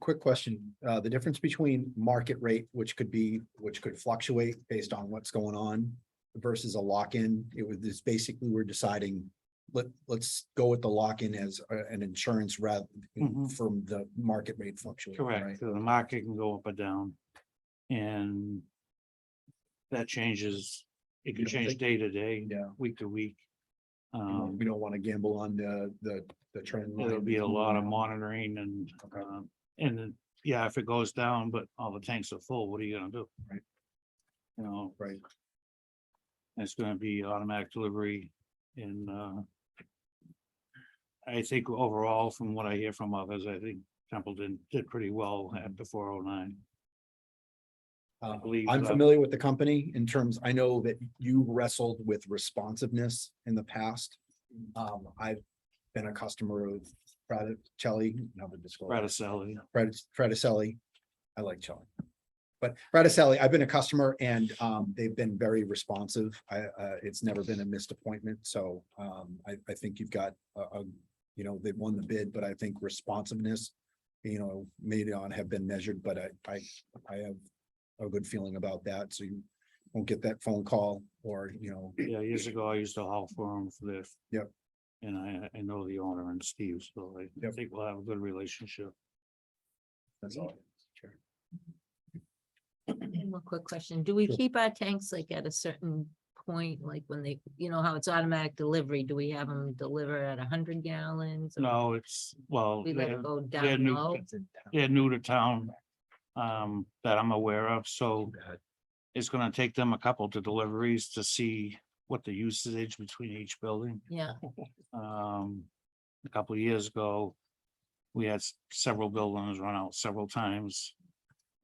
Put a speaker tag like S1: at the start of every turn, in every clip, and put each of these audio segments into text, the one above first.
S1: quick question. Uh, the difference between market rate, which could be, which could fluctuate based on what's going on versus a lock-in, it was, this basically we're deciding, let, let's go with the lock-in as uh, an insurance rather
S2: Mhm.
S1: from the market rate fluctuation,
S2: Correct,
S1: right?
S2: so the market can go up or down. And that changes, it
S1: You
S2: can
S1: don't
S2: change
S1: think-
S2: day to day,
S1: Yeah,
S2: week to week.
S1: you know,
S2: Um,
S1: we don't want to gamble on the, the, the trend.
S2: there'll
S1: line
S2: be a
S1: that's
S2: lot of
S1: moving
S2: monitoring and,
S1: Okay.
S2: um, and then, yeah, if it goes down, but all the tanks are full, what are you gonna do?
S1: Right.
S2: You know,
S1: around, Right,
S2: it's gonna be automatic delivery and, uh, I think overall, from what I hear from others, I think Templeton did pretty well
S1: Mm-hmm.
S2: at the four oh nine.
S1: Uh,
S2: believe,
S1: I'm
S2: uh,
S1: familiar with the company in terms, I know that you wrestled with responsiveness in the past. Um, I've been a customer of Fraticelli, not the disclosure,
S2: Radicelli.
S1: Fraticelli. I like Chelly. But Fraticelli, I've been a customer and um, they've been very responsive. I, uh, it's never been a missed appointment, so um, I, I think you've got a, a- you know, they won the bid, but I think responsiveness, you know, may not have been measured, but I, I, I have a good feeling about that, so you won't get that phone call or, you know,
S2: Yeah, years ago, I used to haul for him for this.
S1: Yep.
S2: And I, I know the owner and Steve, so I
S1: Yep.
S2: think we'll have a good relationship.
S1: that's all.
S3: One more quick question. Do we
S1: Sure.
S3: keep our tanks like at a certain point, like when they, you know, how it's automatic delivery? Do we have them deliver at hundred gallons? or
S2: No, it's, well,
S3: We let
S2: they're,
S3: it go
S2: they're
S3: down
S2: new
S3: low?
S2: tanks. they're new to town, um, that I'm aware of, so it's gonna take them a couple to deliveries to see what the usage between each building.
S3: Yeah,
S2: um, a couple of years ago. We had s- several buildings run out several times.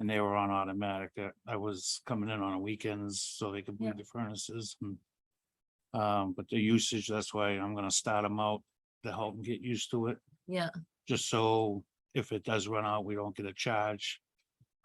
S2: And they were on automatic. Uh, I was coming in on weekends so they could
S3: Yeah.
S2: bleed the furnaces and. Um, but the usage, that's why I'm gonna start them out to help them get used to it,
S3: yeah,
S2: just so if it does run out, we don't get a charge.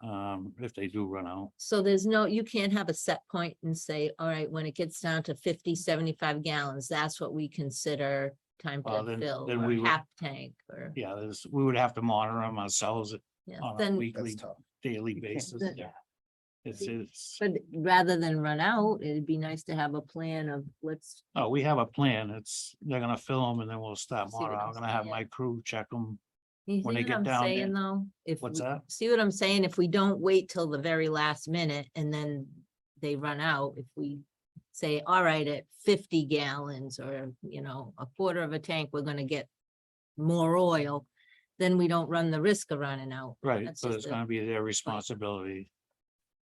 S2: Um, if they do run out,
S3: so there's no, you can't have a set point and say, all right, when it gets down to 50, 75 gallons, that's what we consider time
S2: Well,
S3: to
S2: then-
S3: fill
S2: then we
S3: or
S2: would-
S3: half tank or,
S2: yeah, there's, we would have to monitor them ourselves
S3: yeah,
S2: on a
S3: then,
S1: That's
S2: weekly,
S1: tough.
S2: daily
S1: can't
S2: basis.
S3: do that.
S2: Yeah. It's, it's.
S3: but rather than run out, it'd be nice to have a plan of let's,
S2: Oh, we have a plan. It's, they're gonna film and then we'll stop
S3: See what
S2: tomorrow.
S3: I'm
S2: I'm gonna have
S3: saying?
S2: my crew check them.
S3: you see
S2: When they
S3: what
S2: get
S3: I'm
S2: down there-
S3: saying though? If
S2: What's
S3: we-
S2: that?
S3: See what I'm saying? If we don't wait till the very last minute and then they run out, if we say, all right, at fifty gallons or, you know, a quarter of a tank, we're gonna get more oil, then we don't run the risk of running out.
S2: Right,
S3: That's
S2: so
S3: just
S2: it's
S3: a-
S2: gonna be their responsibility.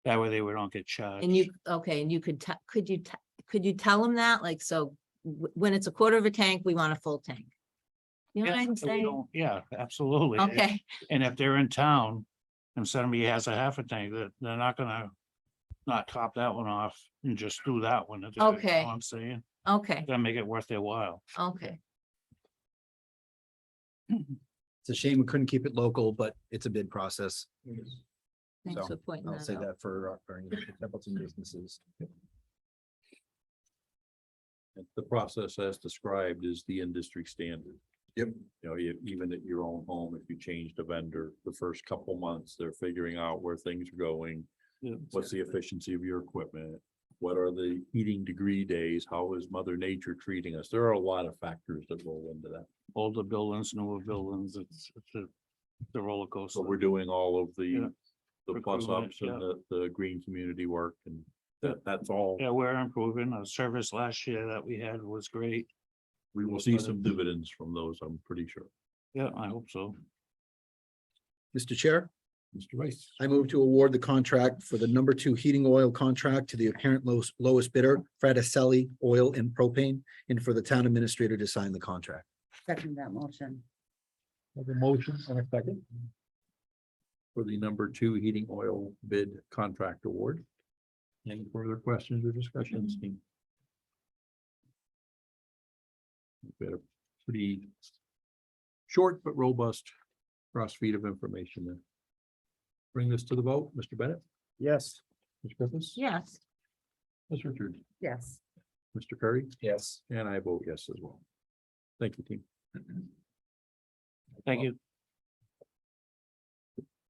S2: That way they would not get charged.
S3: And you, okay, and you could, te- could you, te- could you tell them that? Like, so wh- when it's a quarter of a tank, we want a full tank. You know
S2: Yeah,
S3: what I'm
S2: so we
S3: saying?
S2: don't- Yeah, absolutely. And-
S3: Okay,
S2: And if they're in town and somebody has a half a tank, that they're not gonna not top that one off and just do that one. if they- you know what
S3: Okay.
S2: I'm saying,
S3: okay,
S2: gotta make it worth their while.
S3: okay.
S1: It's a shame we couldn't keep it local, but it's a bid process.
S3: Thanks
S1: So,
S3: for pointing
S1: I'll
S3: that
S1: say
S3: out.
S1: that for, our- for any Templeton businesses.
S4: The process as described is the industry standard.
S1: Yep.
S4: You know, e- even at your own home, if you change the vendor, the first couple months, they're figuring out where things are going.
S2: Yeah.
S4: What's the efficiency of your equipment? What are the heating degree days? How is mother nature treating us? There are a lot of factors that roll into that.
S2: Older buildings, newer buildings, it's, it's a, the roller coaster.
S4: So we're doing all of
S2: Yeah.
S4: the, the plus
S2: Recruitment,
S4: ups and the, the green community work and that, that's all.
S2: Yeah, we're improving. Our service last year that we had was great.
S4: We will see some dividends from those, I'm pretty sure.
S2: Yeah, I hope so.
S1: Mr. Chair,
S4: Mr. Rice.
S1: I move to award the contract for the number two heating oil contract to the apparent lowest, lowest bidder, Fraticelli Oil and Propane, and for the town administrator to sign the contract.
S5: Second that motion.
S4: Have a motion and a second. For the number two heating oil bid contract award. Any further questions or discussions? We had a pretty short but robust crossfeed of information there. Bring this to the vote, Mr. Bennett? Yes. Ms. Griffiths?
S3: Yes.
S4: Ms. Richards?
S5: Yes.
S4: Mr. Curry?
S1: Yes.
S4: And I vote yes as well. Thank you, team.
S2: Thank you.